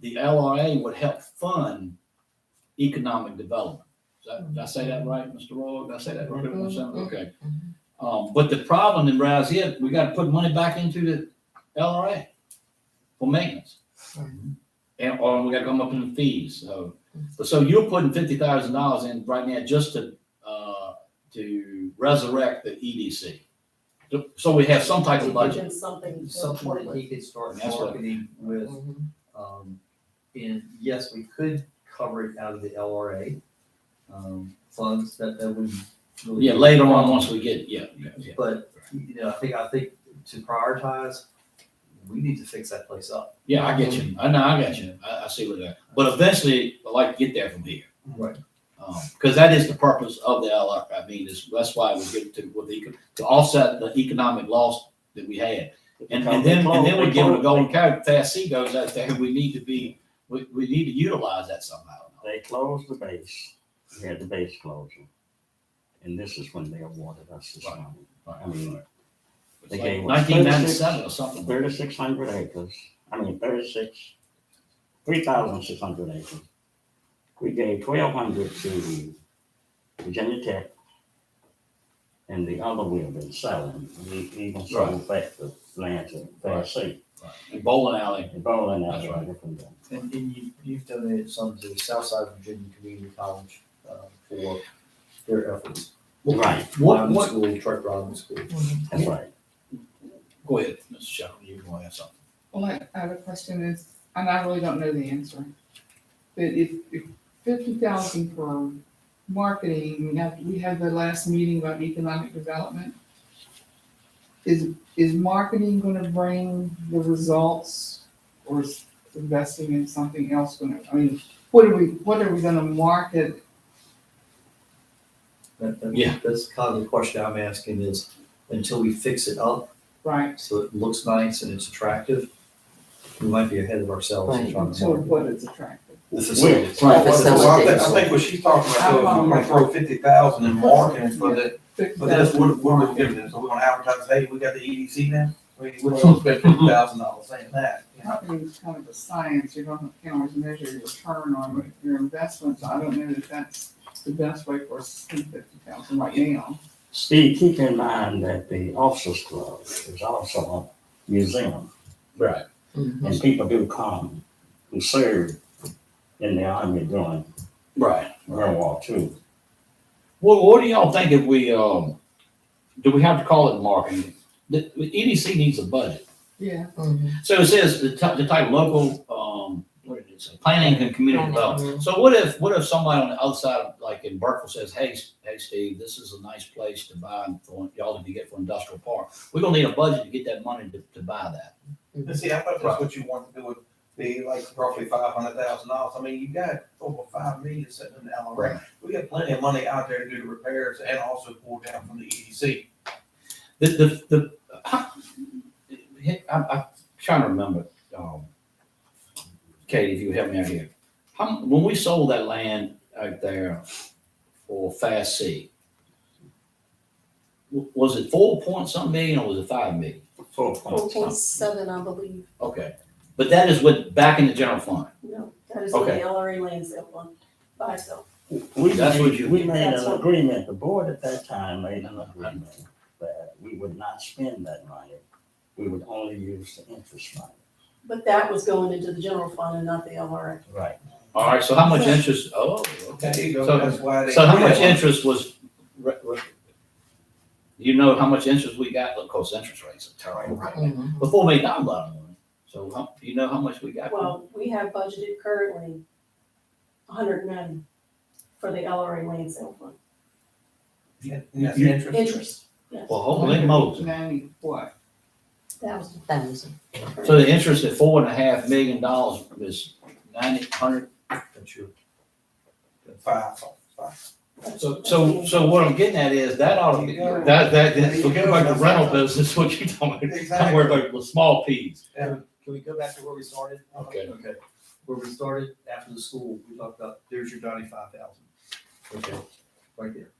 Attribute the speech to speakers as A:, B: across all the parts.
A: the LRA would help fund economic development. Is that- Did I say that right, Mr. Roy? Did I say that right? everyone?
B: Mhm.
A: Okay. Um, but the problem in Rouse is we got to put money back into the LRA for maintenance. And, or we got to come up in the fees. So, but so you're putting fifty thousand dollars in right now just to, uh, to resurrect the EDC. So we have some type of budget.
B: Something.
C: something that he could start
A: That's what-
C: marketing with, um, and yes, we could cover it out of the LRA, um, funds that, that would. really-
A: Yeah, later on, once we get, yeah, yeah, yeah.
C: But, you know, I think, I think to prioritize, we need to fix that place up.
A: Yeah, I get you. I know, I got you. I, I see what that, but eventually, I like to get there from here.
C: Right.
A: Um, cause that is the purpose of the LR, I mean, is, that's why we get to, with the, to offset the economic loss that we had. And, and then, and then we give it a golden cow, fast C goes out there, we need to be, we, we need to utilize that somehow.
D: They closed the base, we had the base closing. And this is when they awarded us this
A: Right.
D: money.
A: Right.
D: I mean,
A: It's
D: they
A: like
D: gave us
A: 1997 or something.
D: Thirty-six hundred acres, I mean thirty-six, three thousand six hundred acres. We gave twelve hundred to Virginia Tech. And the other we have been selling, we even sold back the land to Tennessee,
A: And bowling alley,
D: and bowling
A: That's
D: alley.
A: right.
D: different than-
C: And, and you, you've donated some to Southside Virginia Community College, uh, for their efforts.
A: Well,
D: Right,
A: what,
C: Rodman
A: what,
C: School, truck driving school.
D: that's right.
A: go ahead, Mr. Shepherd, you want to add something?
E: Well, I I have a question is, and I really don't know the answer. But if, if fifty thousand for marketing, we have, we had the last meeting about economic development. Is, is marketing gonna bring the results or is investing in something else gonna, I mean, what are we, what are we gonna market?
C: That, that-
A: Yeah.
C: That's kind of the question I'm asking is, until we fix it up,
E: Right,
C: so it looks nice and it's attractive, we might be ahead of ourselves in
B: Right.
C: trying to
E: so
C: market
E: what is attractive?
C: the
D: facilities.
C: Right.
B: Well,
F: So I think, I
B: Facilities.
F: think what she's talking about, though, is we're gonna throw fifty thousand in marketing for that, but that's what, what we're giving them, so we're gonna advertise, hey, we got the E EDC now. I mean, we're gonna spend fifty thousand dollars saying that, you know?
E: Marketing is kind of a science, you don't, can't always measure your return on your investments, I don't know that that's the best way for us to spend fifty thousand right now.
D: Steve, keep in mind that the Officers Club is also a museum.
A: Right.
B: Mm-hmm.
D: And people do come who served in the army during
A: Right.
D: World War II.
A: What, what do y'all think if we, um, do we have to call it marketing? The, the EDC needs a budget.
E: Yeah.
A: So it says the type, the type local, um, what did it say? Planning and community development. So what if, what if somebody on the outside, like in Berkeley says, hey, S- hey, Steve, this is a nice place to buy for y'all to get for industrial park. We're gonna need a budget to get that money to, to buy that.
F: And see, I thought that's what you want to do with the, like, roughly five hundred thousand dollars, I mean, you got over five million sitting in the LRA. We got plenty of money out there to do the repairs and also pull down from the E EDC.
A: The, the, the, I, I'm trying to remember, um, Katie, if you would help me out here. How, when we sold that land out there for Fast C, w- was it four point some million or was it five million?
B: Four
D: Four point
B: point
D: something.
B: seven, I believe.
A: Okay, but that is what, back in the general fund.
B: No, that is what the
A: Okay.
B: LRA land sale one by itself.
D: We
A: That's what
D: made,
A: you-
D: we made
B: That's
D: an
B: what-
D: agreement, the board at that time made an agreement that we would not spend that money. We would only use the interest money.
B: But that was going into the general fund and not the LRA.
D: Right.
A: All right, so how much interest, oh,
F: There
A: okay.
F: you go,
A: So-
F: that's why they.
A: So how much interest was, re- re- you know how much interest we got, of course, interest rates are terrible right now. before we got a lot of money. So how, you know how much we got?
B: Well, we have budgeted currently hundred and ninety for the LRA land sale fund.
F: And that's interest.
B: Interest, yes,
A: Well, holy moly.
E: Ninety, what?
B: that was,
F: Thousand.
A: So the interest at four and a half million dollars is ninety, hundred.
C: That's your-
F: Five, five.
A: So, so, so what I'm getting at is that ought to be, that, that, that- forget about the rental business, what you talking about. Don't worry about the small peas.
C: Um, Can we go back to where we started?
A: Okay.
C: Okay, where we started after the school, we talked about, there's your ninety-five thousand. Okay, right there.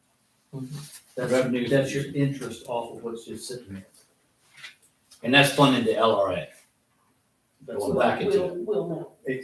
F: Mm-hmm.
A: Revenue.
C: That's, that's your interest off of what's just sitting there.
A: And that's funding the LRA.
C: That's
A: Going
C: what-
A: back into it.
B: We'll, we'll know.